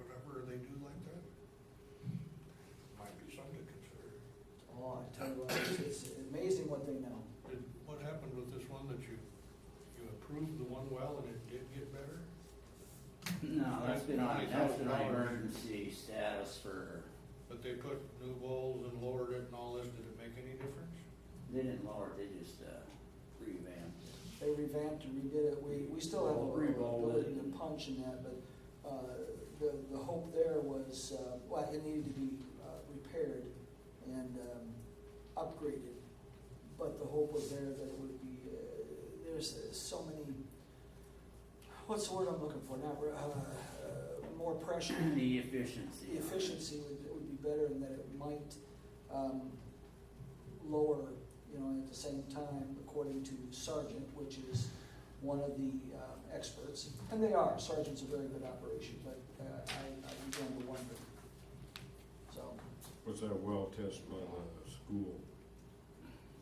Oh, improve the one well and it did get better? No, that's been on, that's been on $20,000. emergency status for, But they put new bowls and lowered it and all this, did it make any difference? they didn't lower it, they just, uh, revamped it. They revamped and redid it. We, we still have a Re-roll it. ability to punch in that, but, uh, the, the hope there was, uh, well, it needed to be, uh, repaired and, um, upgraded. But the hope was there that it would be, uh, there's uh, so many, what's the word I'm looking for? Not, re- uh, uh, more pressure. The efficiency. The efficiency would, would be better and that it might, um, lower, you know, at the same time, according to Sergeant, which is one of the, um, experts. And they are, Sergeant's a very good operation, but, uh, I, I began to wonder. So, Was that well tested by the school?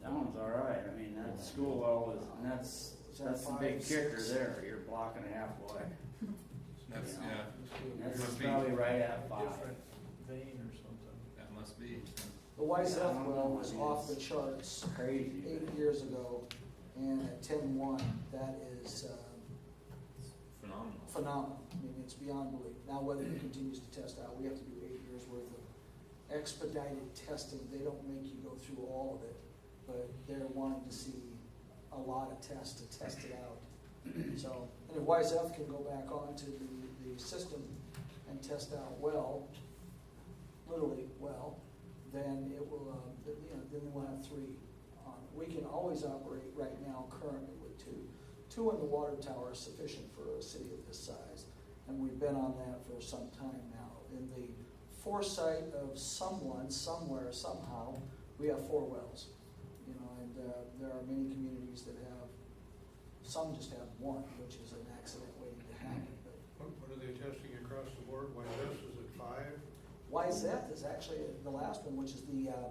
That one's all right, I mean, that school well is, and that's, Is that that's the big five, kicker six? there, you're blocking halfway. That's, Yeah. And yeah, Must be a That's Must be. probably right at five. different vein or something. that must be. the Wise Yeah, I F don't well know was what it off the is. charts Crazy. eight but- years ago, and at ten-one, that is, um, Phenomenal. phenomenal. I mean, it's beyond belief. Now, whether it continues to test out, we have to do eight years worth of expedited testing. They don't make you go through all of it, but they're wanting to see a lot of tests to test it out. So, and if Wise Health can go back onto the, the system and test out well, literally well, then it will, um, th- you know, then we'll have three on. We can always operate right now currently with two. Two in the water tower is sufficient for a city of this size, and we've been on that for some time now. In the foresight of someone, somewhere, somehow, we have four wells. You know, and uh, there are many communities that have, some just have one, which is an accident waiting to happen. But What, what are they testing across the board? Why this is at five? YZEF is actually the last one, which is the uh,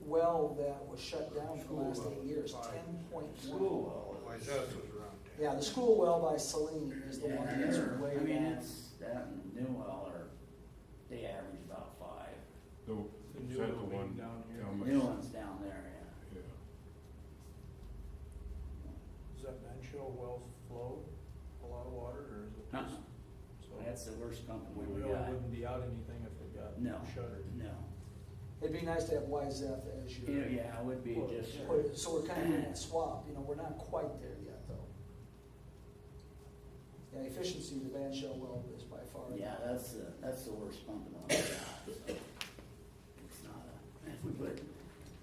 well that was shut down for the last eight years, School well, five. ten point one. School well Why is. this was around ten? Yeah, the school well by Celine is the Yeah, one that's they're- way I mean, down. it's, that and new well are, they average about five. The, The is new that the one? one down here. down by- New ones down there, yeah. Yeah. Does that bench hill well flow a lot of water or is it just? Uh-uh. so That's the worst company We we really got. wouldn't be out anything if it No. got shuttered. No. It'd be nice to have YZEF as You your. know, Yeah, it would be Well, just. yeah. We're- So we're kind of in that swap, you know, we're not quite there yet, though. Yeah, efficiency of the Van Shell well is by far. Yeah, that's the, that's the worst pumping on the job, so. It's not a, if we put,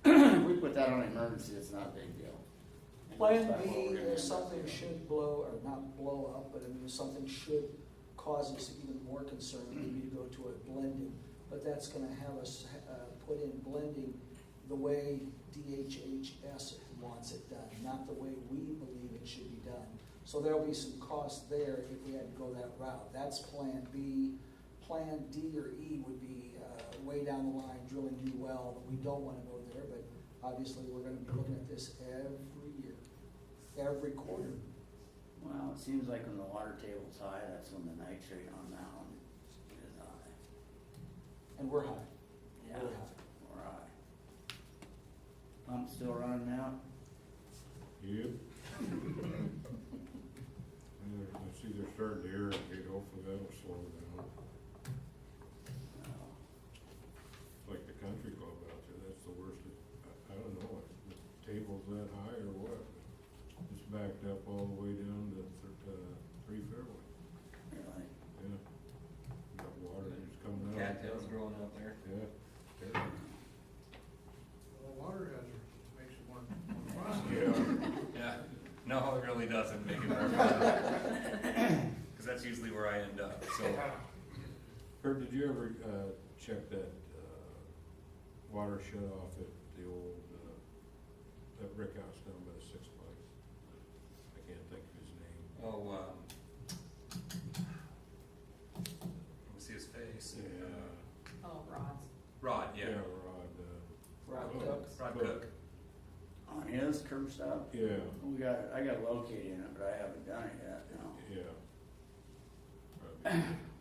if we put that on emergency, it's not a big deal. Plan That's B, what we're gonna if do. something should blow, or not blow up, but I mean, if something should cause us even more concern, we need to go to a blending. But that's gonna have us, uh, put in blending the way DHHS wants it done, not the way we believe it should be done. So there'll be some cost there if we had to go that route. That's Plan B. Plan D or E would be, uh, way down the line, drilling new well. We don't wanna go there, but obviously, we're gonna be looking at this every year every quarter. Well, it seems like when the water table's high, that's when the nitrate on that one is high. And we're high. Yeah, We're high. we're high. Pump's still running out? Yep. And they're- I see they're starting to irrigate, hopefully that'll slow down, No. It's like the country club out there, that's the worst, I, I don't know, if the table's that high or what. but It's backed up all the way down to, th- uh, three fairway, Really? yeah. Got water that's coming out. Cattails growing out there. Yeah, terrible. Well, water hazard makes it more, more costly. Yeah, Yeah, no, it really doesn't make it Because that's usually where I end up, so. Herb, did you ever, uh, check that, uh, water shut off at the old, uh, that brick house down by the Six Flags? I can't think of his name. Oh, um. Let me see his face. Uh, Oh, rods. Rod, yeah. Yeah, Rod, uh, Rod Oh. Cook. Rod Cook. On his curb stop? yeah, We got, I got located in it, but I haven't done it yet, no. yeah. Probably